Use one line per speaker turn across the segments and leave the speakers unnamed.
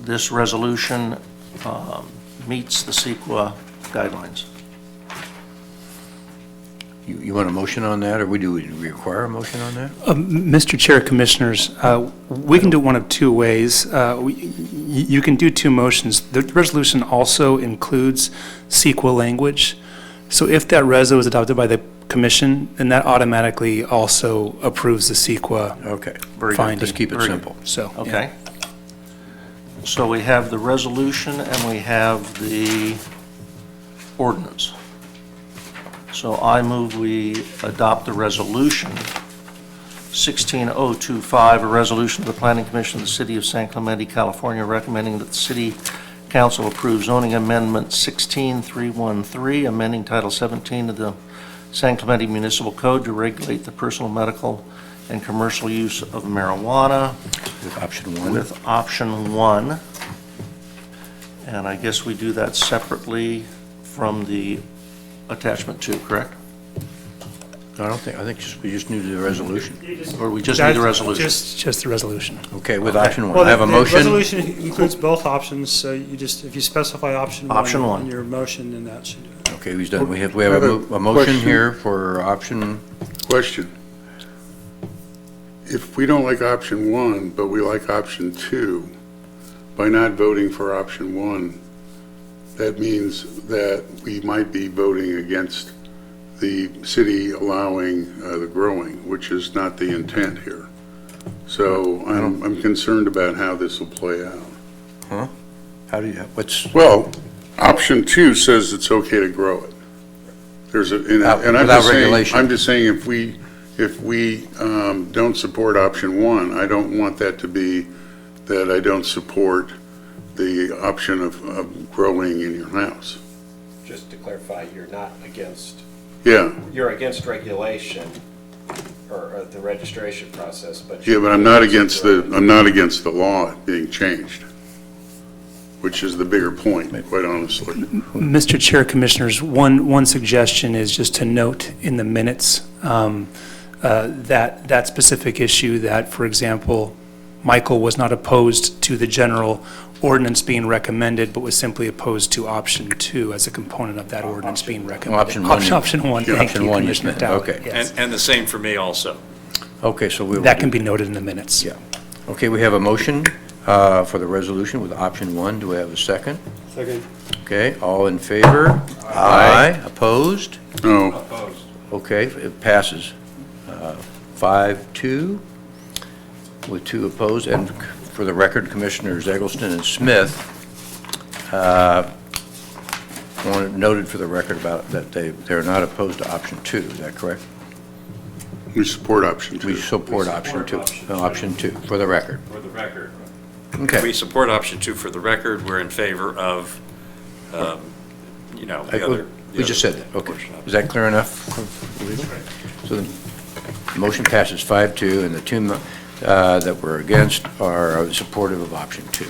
this resolution um, meets the CEQA guidelines.
You, you want a motion on that, or we do, do we require a motion on that?
Mr. Chair, Commissioners, uh, we can do it one of two ways. Uh, we- y- You can do two motions. The resolution also includes SEQA language. So if that reso is adopted by the commission, then that automatically also approves the CEQA
Okay.
Very good.
finding.
Let's keep it
Very good.
simple.
So. yeah.
Okay? So we have the resolution and we have the ordinance. So I move we adopt the resolution 16025, a resolution of the Planning Commission of the City of San Clemente, California, recommending that the city council approve zoning amendment 16313, amending Title 17 of the San Clemente Municipal Code to regulate the personal, medical, and commercial use of marijuana
With option one,
with option one. And I guess we do that separately from the attachment two, correct?
I don't think, I think just- we just need the resolution.
Or we just need a
That-
resolution?
Just, just the resolution.
Okay, with option one,
Well,
I have a
the-
motion.
The resolution includes both options, so you just, if you specify option one.
Option one.
In your motion, then that should do it.
Okay, he's done, we have, we have a mo- a motion
Question.
here for option,
Question. If we don't like option one, but we like option two, by not voting for option one, that means that we might be voting against the city allowing uh, the growing, which is not the intent here. So I'm, I'm concerned about how this will play out.
how do you, what's,
Well, option two says it's okay to grow it. There's a, and I- and I'm
Without
just saying,
regulation.
I'm just saying if we, if we um, don't support option one, I don't want that to be that I don't support the option of, of growing in your house.
just to clarify, you're not against,
Yeah,
you're against regulation or or the registration process, but.
yeah, but I'm not against the, I'm not against the law being changed, which is the bigger point, quite honestly.
Mr. Chair, Commissioners, one, one suggestion is just to note in the minutes um, uh, that, that specific issue, that, for example, Michael was not opposed to the general ordinance being recommended, but was simply opposed to option two as a component of that ordinance being recommended.
option one.
Option- Option one,
Yeah,
thank
option
you,
one, you
Commissioner
meant,
Dowd.
okay.
yes.
And, and the same for me also.
okay, so we will.
That can be noted in the minutes.
Yeah. Okay, we have a motion uh, for the resolution with option one. Do we have a second?
Second.
Okay, all in favor? Aye. Opposed?
No.
Okay, it passes uh, five, two, with two opposed. And for the record, Commissioners Eggleston and Smith uh, wanted- noted for the record about that they, they're not opposed to option two. Is that correct?
We support option two.
We support option two.
option
Uh, Option two, for the record.
For the record.
Okay.
We support option two for the record. We're in favor of, um, you know,
I-
the other. the
We just said
other
that, okay.
portion of it.
Is that clear enough? for everyone? So the motion passes 5-2, and the two mo- uh, that were against are supportive of option two.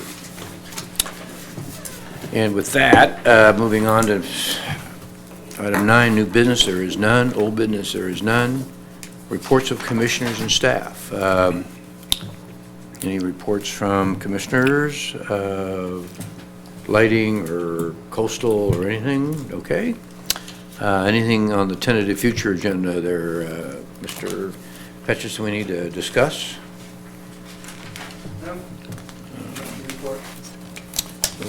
And with that, uh, moving on to item nine, new business, there is none. Old business, there is none. Reports of commissioners and staff. Um, Any reports from commissioners, uh, lighting, or coastal, or anything? Okay. Uh, Anything on the tentative future agenda there, uh, Mr. Petches, we need to discuss?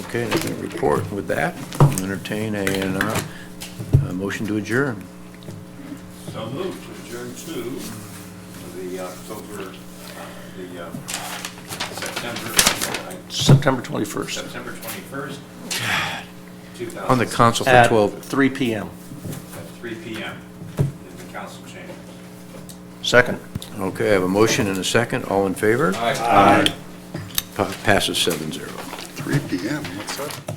Okay, nothing to report. With that, I'll entertain a, uh, a motion to adjourn.
So moved to adjourn to the October, uh, the uh, September,
September 21st,
September 21st,
On the
2000,
council for
at
12,
3 PM.
at 3 PM in the council chamber.
Second.
okay, I have a motion and a second. All in favor? Aye. Passes seven zero.
3 PM, what's up?